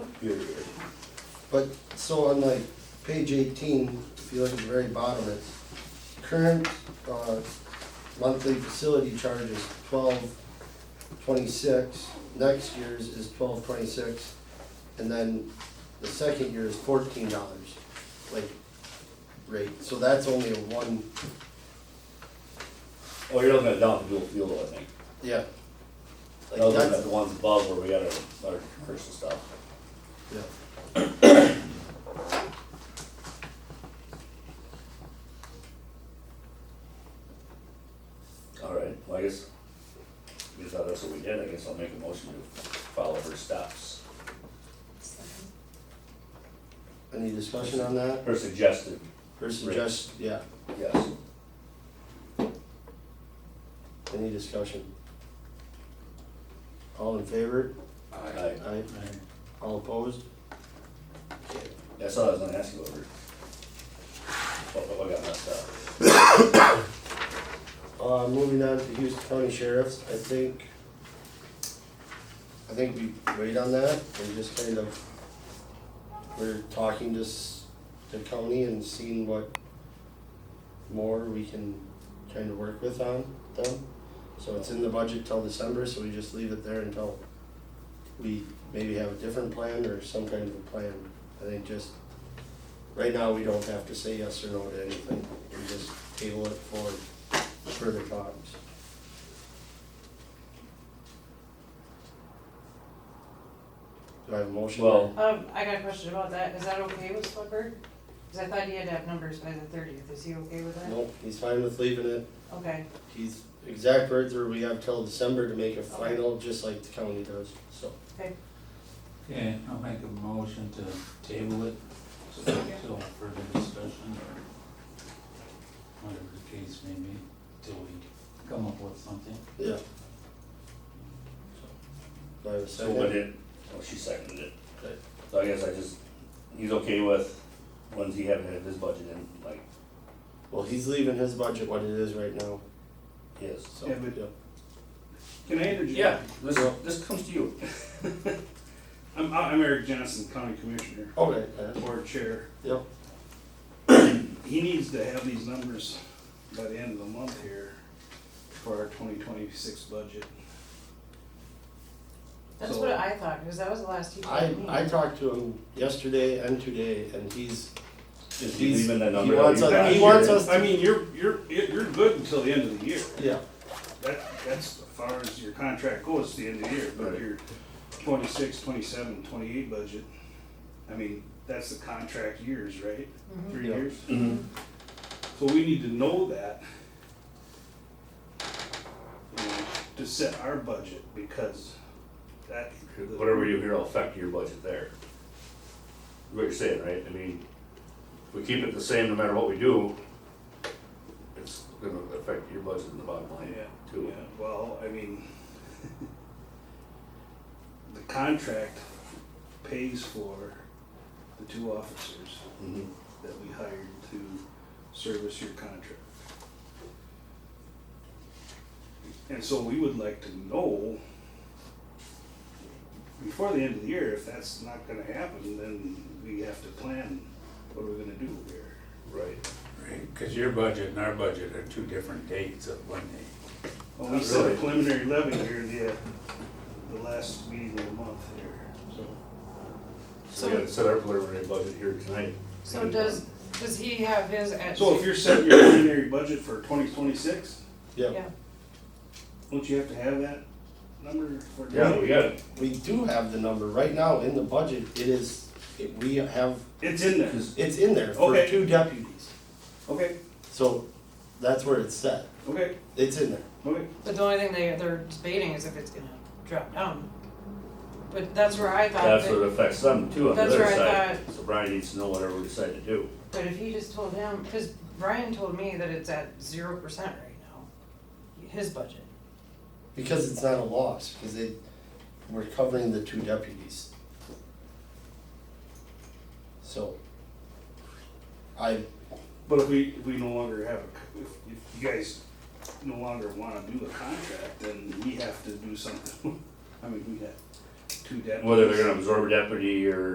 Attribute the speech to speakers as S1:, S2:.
S1: You're good.
S2: But, so on like page eighteen, if you look at the very bottom, it's current, uh, monthly facility charge is twelve twenty-six, next year's is twelve twenty-six, and then the second year is fourteen dollars, like, rate, so that's only a one,
S1: Oh, you're looking at down to dual fuel, I think.
S2: yeah. Like
S1: Those are
S2: that's-
S1: the ones above where we got our, our commercial stuff.
S2: Yeah.
S1: All right, well, I guess, I guess that's what we did, I guess I'll make a motion to follow her steps.
S2: Any discussion on that,
S1: Her suggested,
S2: or suggest, yeah,
S1: yes.
S2: any discussion? All in favor?
S1: I,
S2: Aye. All opposed? Uh, Okay.
S1: that's all I was gonna ask you over. What, what I got messed up?
S2: Uh, moving on to Houston County Sheriff's, I think, I think we wait on that and just kind of, we're talking to s- the county and seeing what more we can kind of work with on them. So it's in the budget till December, so we just leave it there until we maybe have a different plan or some kind of a plan. I think just, right now, we don't have to say yes or no to anything, we just table it for further talks. Do I have a motion?
S1: Well-
S3: Um, I got a question about that, is that okay with Slicker? Cause I thought he had to have numbers by the thirtieth, is he okay with that?
S2: Nope, he's fine with leaving it.
S3: Okay,
S2: He's, exact words are, we have till December to make a final, just like the county does, so.
S4: Okay, I'll make a motion to table it till further discussion or whatever the case may be, till we come up with something.
S2: Yeah. Do I have a
S1: So what
S2: second?
S1: did, oh, she seconded it.
S2: Okay.
S1: So I guess I just, he's okay with, when's he having his budget in, like,
S2: Well, he's leaving his budget what it is right now,
S1: his, so.
S2: so.
S5: Yeah, but- Can I interject?
S1: Yeah, this, this comes to you.
S5: I'm, I'm Eric Johnson, County Commissioner,
S2: Okay, yeah,
S5: Board Chair.
S2: yep,
S5: He needs to have these numbers by the end of the month here for our twenty twenty-six budget.
S3: that's
S5: So-
S3: what I thought, cause that was the last he
S2: I,
S3: told me.
S2: I talked to him yesterday and today, and he's,
S1: Just
S2: He's-
S1: leaving the
S2: he
S1: number. that
S2: wants
S1: we've
S2: us-
S1: got
S2: he
S1: here.
S2: wants us-
S5: I mean, you're, you're, you're good until the end of the year.
S2: yeah,
S5: That, that's as far as your contract goes, it's the end of the year, but
S1: Right.
S5: your 26, 27, 28 budget, I mean, that's the contract years, right?
S3: Mhm.
S5: Three
S2: Yeah.
S5: years?
S1: Mhm.
S5: So we need to know that. you know, To set our budget, because that.
S1: Whatever you hear will affect your budget there. What you're saying, right? I mean, if we keep it the same no matter what we do, it's gonna affect your budget and the bottom line
S5: Yeah,
S1: too.
S5: yeah, well, I mean. The contract pays for the two officers
S1: Mhm.
S5: that we hired to service your contract. And so we would like to know before the end of the year, if that's not gonna happen, then we have to plan what we're gonna do here.
S1: Right.
S4: Right, cause your budget and our budget are two different dates of when they,
S5: Well, we set a
S1: Really?
S5: preliminary levy here the, uh, the last meeting of the month here, so.
S1: So we gotta set our preliminary budget here tonight.
S3: So does, does he have his at?
S5: So if you're setting your preliminary budget for twenty twenty-six,
S2: yeah.
S3: Yeah,
S5: don't you have to have that number for?
S1: Yeah, we got it.
S2: We do have the number, right now in the budget, it is, it- we have,
S5: It's in there,
S2: it's in there for
S5: Okay.
S2: two deputies.
S5: okay,
S2: So that's where it's set.
S5: okay,
S2: It's in there.
S5: okay.
S3: but the only thing they, they're debating is if it's gonna drop down. But that's where I thought
S1: That's what
S3: that,
S1: affects them too on the
S3: That's
S1: other
S3: where I
S1: side. So Brian needs to know whatever we decide to do.
S3: but if he just told him, cause Brian told me that it's at zero percent right now, his budget.
S2: Because it's not a loss, because they, we're covering the two deputies. So. I,
S5: But if we, if we no longer have a, c- if, if you guys no longer wanna do a contract, then we have to do something. I mean, we got two deputies.
S1: Whether they're gonna absorb a deputy or